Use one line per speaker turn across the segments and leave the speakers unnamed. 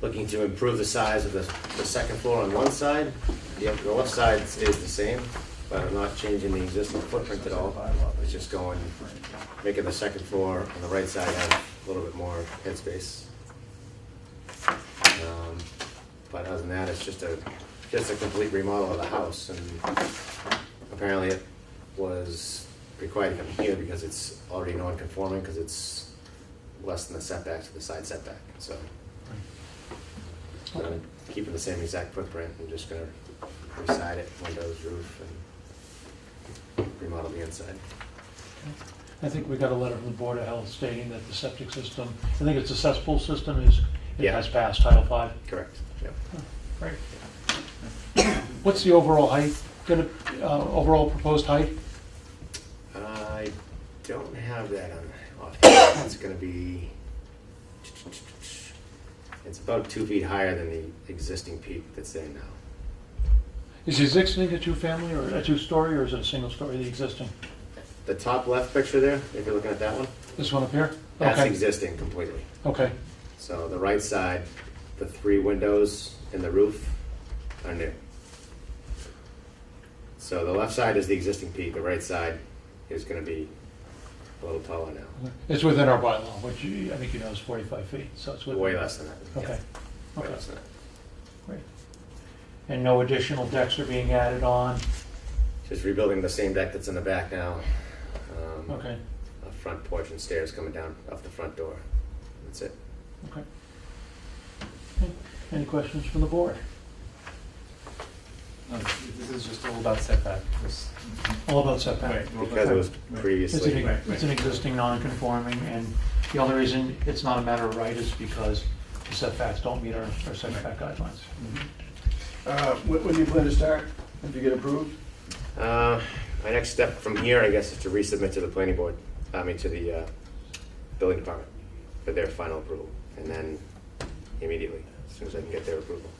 looking to improve the size of the, the second floor on one side. The, the left side is the same, but I'm not changing the existing footprint at all. It's just going, making the second floor on the right side have a little bit more headspace. Um, But other than that, it's just a, just a complete remodel of the house and apparently it was required to come here because it's already non-conforming, because it's less than the setback to the side setback, so. uh, Keeping the same exact footprint, I'm just gonna reside it, windows, roof, and remodel the inside.
I think we got a letter from the Board of Health stating that the septic system, I think it's a cesspool system, is, it
Yeah.
has passed Title Five.
Correct, yep.
Right. What's the overall height, gonna, uh, overall proposed height?
I don't have that on, offhand. it's gonna be, it's about two feet higher than the existing peak that's there now.
Is the existing a two-family or a two-story, or is it a single story, the existing?
The top left picture there, if you're looking at that one,
This one up here?
that's
Okay.
existing completely.
Okay,
So the right side, the three windows and the roof are new. So the left side is the existing peak, the right side is gonna be a little taller now,
it's within our bylaw, which you- I think you know is forty-five feet, so it's within.
way less than that.
Okay,
Yeah, Way
okay.
less than that.
Great. And no additional decks are being added on?
Just rebuilding the same deck that's in the back now. Um,
Okay,
A front porch and stairs coming down off the front door, that's it.
okay. Okay. Any questions from the board?
No, This is just all about setback, this.
All about setback.
Right, all about
Because it was
setback.
It's an,
previously,
Right, right.
it's an existing non-conforming, and the only reason it's not a matter of right is because the setbacks don't meet our our setback guidelines.
Uh, When when do you plan to start, if you get approved?
uh, my next step from here, I guess, is to resubmit to the planning board, I mean, to the, uh, building department for their final approval, and then immediately, as soon as I can get their approval.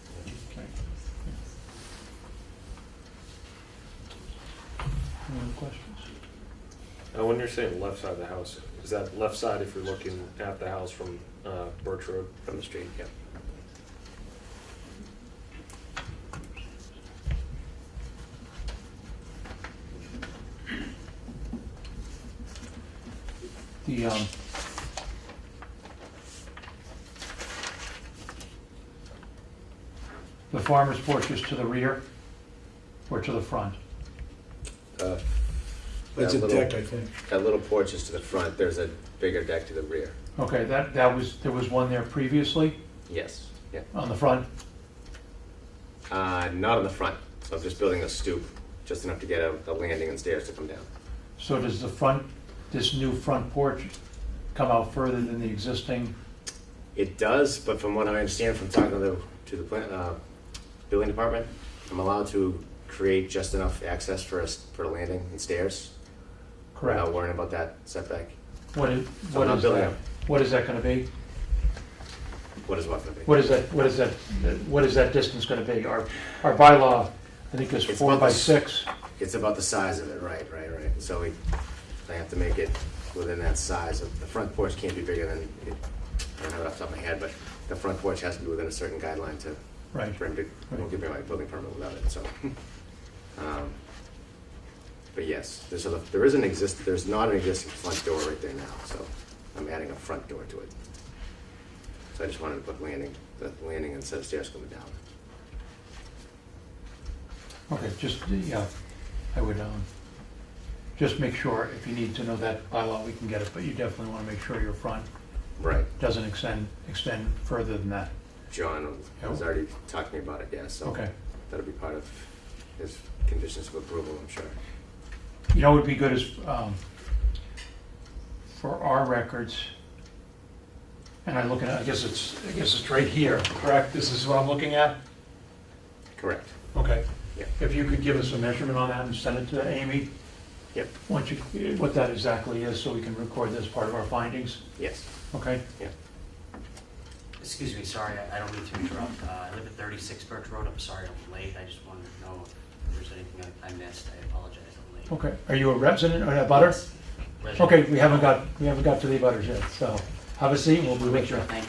Any other questions?
Uh, when you're saying left side of the house, is that left side if you're looking at the house from uh, Birch Road?
From the street, yeah.
The, um, the farmer's porch is to the rear or to the front?
Uh, that
It's a
little-
deck, I think.
That little porch is to the front, there's a bigger deck to the rear.
Okay, that, that was, there was one there previously
Yes. Yeah,
on the front?
uh, not on the front, so I'm just building a stoop, just enough to get a, a landing and stairs to come down.
So does the front, this new front porch come out further than the existing?
It does, but from what I understand from talking to the, to the plan, uh, building department, I'm allowed to create just enough access for us, for a landing and stairs. Without worrying about that setback.
What is,
So
what
not
is
building
that?
up.
What is that gonna be?
What is what gonna be?
What is that, what is that, what is that distance gonna be? Our, our bylaw, I think is
It's
four
about
by
the s-
six.
It's about the size of it, right, right, right. So we, I have to make it within that size. The front porch can't be bigger than, it- I don't have it off the top of my head, but the front porch has to be within a certain guideline to,
Right,
for him to, won't give me my building permit without it, so. Um, But yes, there's a, there is an exist, there's not an existing front door right there now, so I'm adding a front door to it. So I just wanted to put landing, the landing instead of stairs coming down.
okay, just, yeah, I would, um, just make sure, if you need to know that bylaw, we can get it, but you definitely wanna make sure your front
Right.
doesn't extend, extend further than that.
John has already talked to me about it, yeah, so.
Okay.
That'll be part of his conditions of approval, I'm sure.
You know, it would be good is, um, for our records, and I look at, I guess it's, I guess it's right here, correct? This is what I'm looking at?
Correct.
Okay.
Yeah.
If you could give us a measurement on that and send it to Amy,
Yep,
once you, what that exactly is, so we can record this part of our findings,
yes,
okay?
yeah.
Excuse me, sorry, I- I don't mean to interrupt. Uh, I live at 36 Birch Road. I'm sorry I'm late. I just wanted to know if there's anything I I missed. I apologize, I'm late.
Okay, are you a resident or a butter?
Resident-
Okay, we haven't got, we haven't got to the butters yet, so have a seat, we'll, we'll make sure.
Thank you.